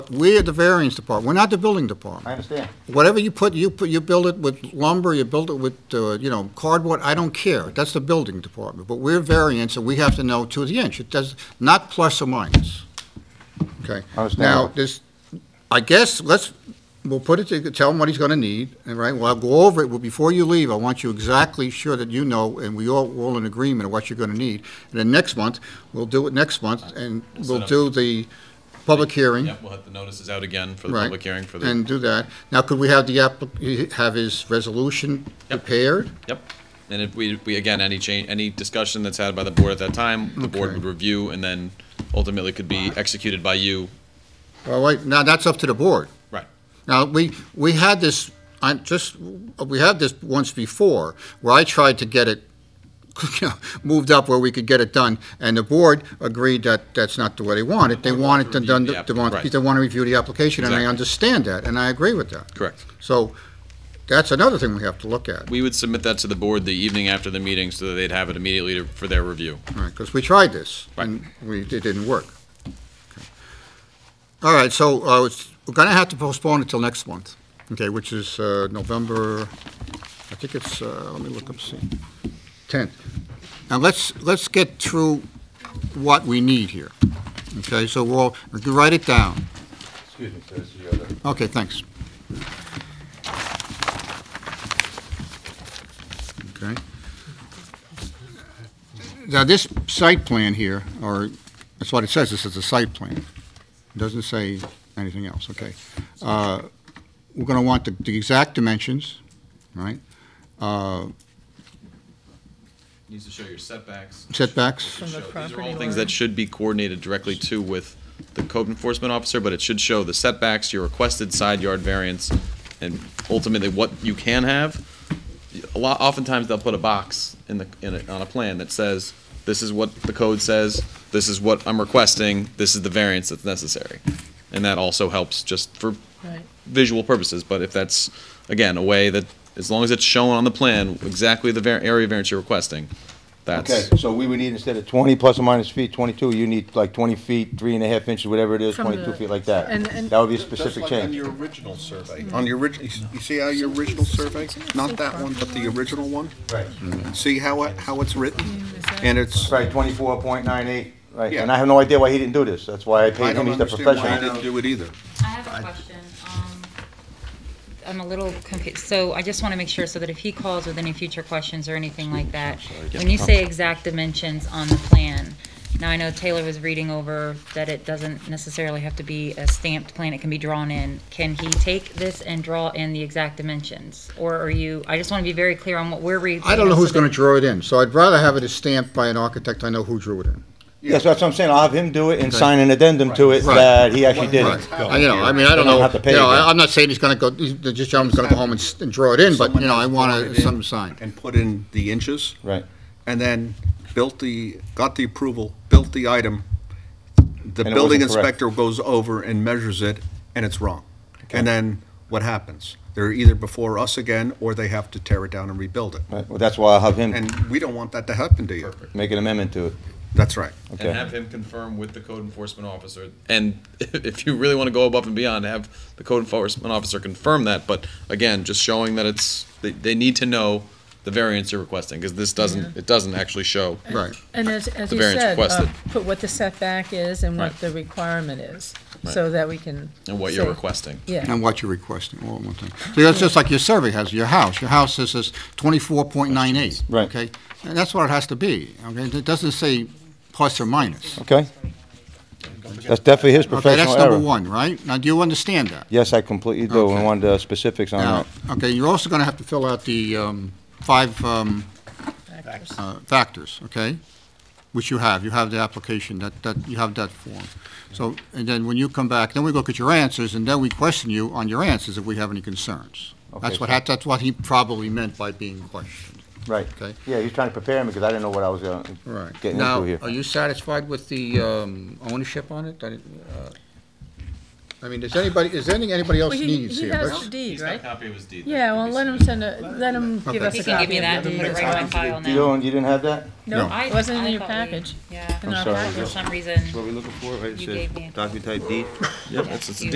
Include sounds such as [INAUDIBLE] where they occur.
We are the variance department, we're not the building department. understand. Whatever you put, you put, you build it with lumber, you build it with, uh, you know, cardboard, I don't care, that's the building department. But we're variance, and we have to know to the inch, it does, not plus or minus. Okay? I understand. Now, this, I guess, let's, we'll put it, to tell him what he's gonna need, and right, well, I'll go over it, but before you leave, I want you exactly sure that you know, and we all, we're all in agreement of what you're gonna need. And then next month, we'll do it next month, and We'll we'll set up- do the public hearing. Yep, we'll have the notices out again for the Right. public hearing for the, And do that. Now, could we have the applic, have his resolution Yep. prepared? yep. And if we, we, again, any change, any discussion that's had by the board at that time, the board Okay. would review and then ultimately could be executed by you. All right, now that's up to the board. Right. Now, we, we had this, I just, we had this once before, where I tried to get it [LAUGHS] you know, moved up where we could get it done, and the board agreed that that's not the way they want it. They The board want it wants to to done, review the they want, applic- they want to review the application, and I Exactly. understand that, and I agree with that. Correct. So, that's another thing we have to look at, We would submit that to the board the evening after the meeting so that they'd have it immediately to- for their review. All right, because we tried this, and we, it didn't work. Okay. All right, so, uh, it's, we're gonna have to postpone it till next month, okay, which is, uh, November, I think it's, uh, let me look up, see, tenth. Now, let's, let's get through what we need here, okay, so we'll, write it down, Excuse me, sir, this is Yoder. okay, thanks. Okay. Now, this site plan here, or, that's what it says, this is a site plan. It Doesn't say anything else, okay. Uh, We're going to want the- the exact dimensions, right? Uh, Needs to show your setbacks. Setbacks, Show- From the These are property all things line. that should be coordinated directly to with the code enforcement officer, but it should show the setbacks, your requested side yard variance, and ultimately what you can have. A lot, oftentimes they'll put a box in the, in a, on a plan that says, this is what the code says, this is what I'm requesting, this is the variance that's necessary. And that also helps just for Right. visual purposes, but if that's, again, a way that, as long as it's shown on the plan, exactly the var- area variance you're requesting, Okay, that's, so we would need instead of twenty plus or minus feet, twenty-two, you need like twenty feet, three and a half inches, whatever it is, From twenty-two the- feet like that. and- and- That would be a Just specific like on change. your original survey, on your original, you see how your original survey, not that one, but the original one? Right. See how it, how it's written? And it's, Right, twenty-four point nine eight, right, and Yeah. I have no idea why he didn't do this, that's why I I paid him, don't he's the understand why I professional. didn't do it either. I have a question. Um, I'm a little confused, so I just want to make sure so that if he calls with any future questions or anything like that, when you say exact dimensions on the plan, now I know Taylor was reading over that it doesn't necessarily have to be a stamped plan, it can be drawn in. Can he take this and draw in the exact dimensions? Or are you, I just want to be very clear on what we're reading. I don't know who's going to draw it in, so I'd rather have it as stamped by an architect I know who drew it in. Yes, that's what I'm saying, I'll have him do it and sign an addendum to it Right. that he actually did it. I- You know, I mean, I don't They don't know, have to pay you know, again. I- I'm not saying he's gonna go, he's- the gentleman's gonna go home and s- and draw it in, but, you know, I want Someone to else some brought it sign. in And put in the inches. Right. And then built the, got the approval, built the item. The And it building wasn't correct. inspector goes over and measures it, and it's wrong. And then what happens? They're either before us again, or they have to tear it down and rebuild it. Right, well, that's why I'll have him And we don't want that to happen to you. make an amendment to it, That's right. okay? and have him confirm with the code enforcement officer. And [LAUGHS] if you really want to go above and beyond, have the code enforcement officer confirm that. But again, just showing that it's, they, they need to know the variance you're requesting, because this doesn't, it doesn't actually show. Right. And as, as The you variance said, uh, requested. put what the setback is and what Right. the requirement is, so that we can. And what you're say- requesting. Yeah, And what you're requesting, all in one thing. So that's just like your survey has, your house, your house says is twenty-four point nine eight. Right. Okay, and that's what it has to be, okay, it doesn't say plus or minus. Okay? That's definitely his Okay, professional that's error. number one, right? Now, do you understand that? Yes, I completely do, I Okay. wanted uh, specifics on Now, that. okay, you're also gonna have to fill out the, um, five, um, factors. uh, factors, okay? Which you have, you have the application, that, that, you have that form. So, and then when you come back, then we look at your answers, and then we question you on your answers if we have any concerns. That's Okay, what, so- hap- that's what he probably meant by being questioned. Right. Okay. Yeah, he was trying to prepare me because I didn't know what I was uh, getting into here. Now, uh, are you satisfied with the um, ownership on it? That it, uh, I mean, does anybody, is there any- anybody else Well, he, needs he here? has Let's- the deed, right? copy of his deed. Yeah, well, let him send a, let him give Okay. us He a can give me copy that of the and deed. put it right in my file You now. don't, you didn't have that? No, No. I- it wasn't I in your thought we- package. Yeah, In I'm our sorry. package. for some reason. What we looking for, right? You said gave me a- docu-type deed? Yep, it's, it's a You